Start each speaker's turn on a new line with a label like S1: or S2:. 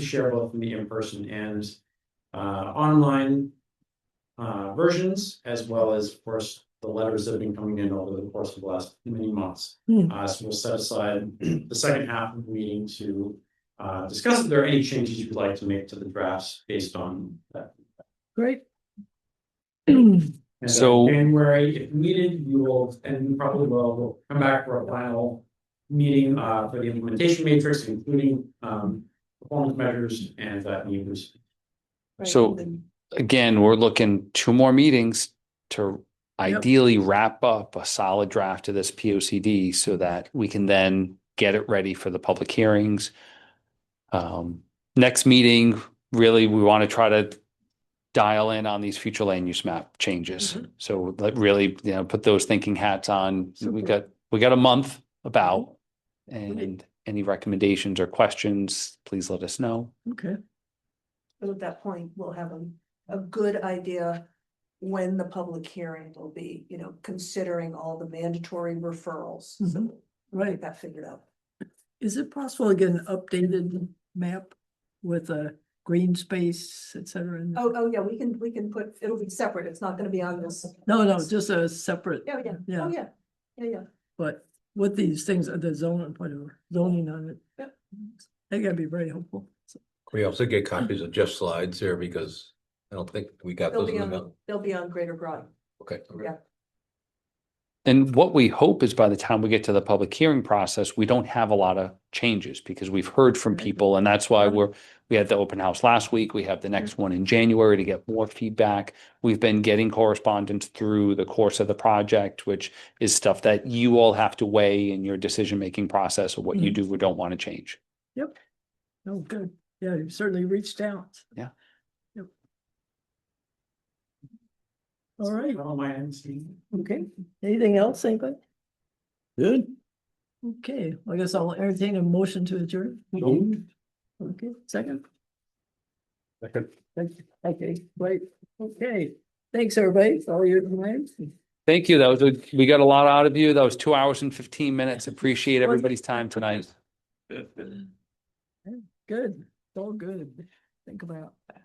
S1: share both the in-person and uh online. Uh versions, as well as, of course, the letters that have been coming in over the course of the last many months.
S2: Hmm.
S1: Uh, so we'll set aside the second half of the meeting to uh discuss if there are any changes you'd like to make to the drafts based on that.
S2: Great.
S1: And then
S3: So-
S1: January, if needed, you will, and you probably will, will come back for a final meeting uh for the implementation matrix, including um performance measures and that news.
S3: So- again, we're looking two more meetings to
S2: Yep.
S3: ideally wrap up a solid draft of this P O C D so that we can then get it ready for the public hearings. Um, next meeting, really, we want to try to dial in on these future land use map changes.
S2: Mhm.
S3: So like really, you know, put those thinking hats on. We
S2: Super. Mm-hmm.
S3: got, we got a month about. And any recommendations or questions, please let us know.
S2: Okay,
S4: But at that point, we'll have a, a good idea when the public hearing will be, you know, considering all the mandatory referrals. So
S2: Mhm.
S4: we'll
S2: right.
S4: Get that figured out.
S2: Is it possible to get an updated map with a green space, et cetera? in there?
S4: Oh, oh, yeah, we can, we can put, it'll be separate. It's not gonna be on this.
S2: No, no, just a separate.
S4: Yeah, yeah, oh,
S2: Yeah,
S4: yeah, yeah, yeah.
S2: but with these things, uh, the zoning, whatever, zoning on it.
S4: Yep.
S2: They gotta be very helpful. So,
S5: We also
S4: Mm.
S5: get copies of Jeff's slides here because I don't think we got
S4: They'll
S5: those
S4: be
S5: in the
S4: on,
S5: mail.
S4: they'll be on Greater Broad.
S5: Okay.
S4: Yeah.
S3: And what we hope is by the time we get to the public hearing process, we don't have a lot of changes because we've heard from
S2: Right.
S3: people and that's why
S2: Right.
S3: we're, we had the open house last week. We have the next one in January to get more feedback. We've been getting correspondence through the course of the project, which is stuff that you all have to weigh in your decision-making process of what you
S2: Mhm.
S3: do or don't want to change.
S2: No, oh, good. Yeah, you certainly reached out.
S3: Yeah.
S2: Yep. All right,
S1: All my ends.
S2: okay. Anything else, anybody?
S6: Good.
S2: Okay, I guess I'll entertain a motion to adjourn. Okay, second.
S6: Second.
S2: Okay, wait, okay. Thanks, everybody, for all your comments.
S3: Thank you. That was, a- we got a lot out of you. That was two hours and fifteen minutes. Appreciate everybody's time tonight.
S2: Good, it's all good. Think about.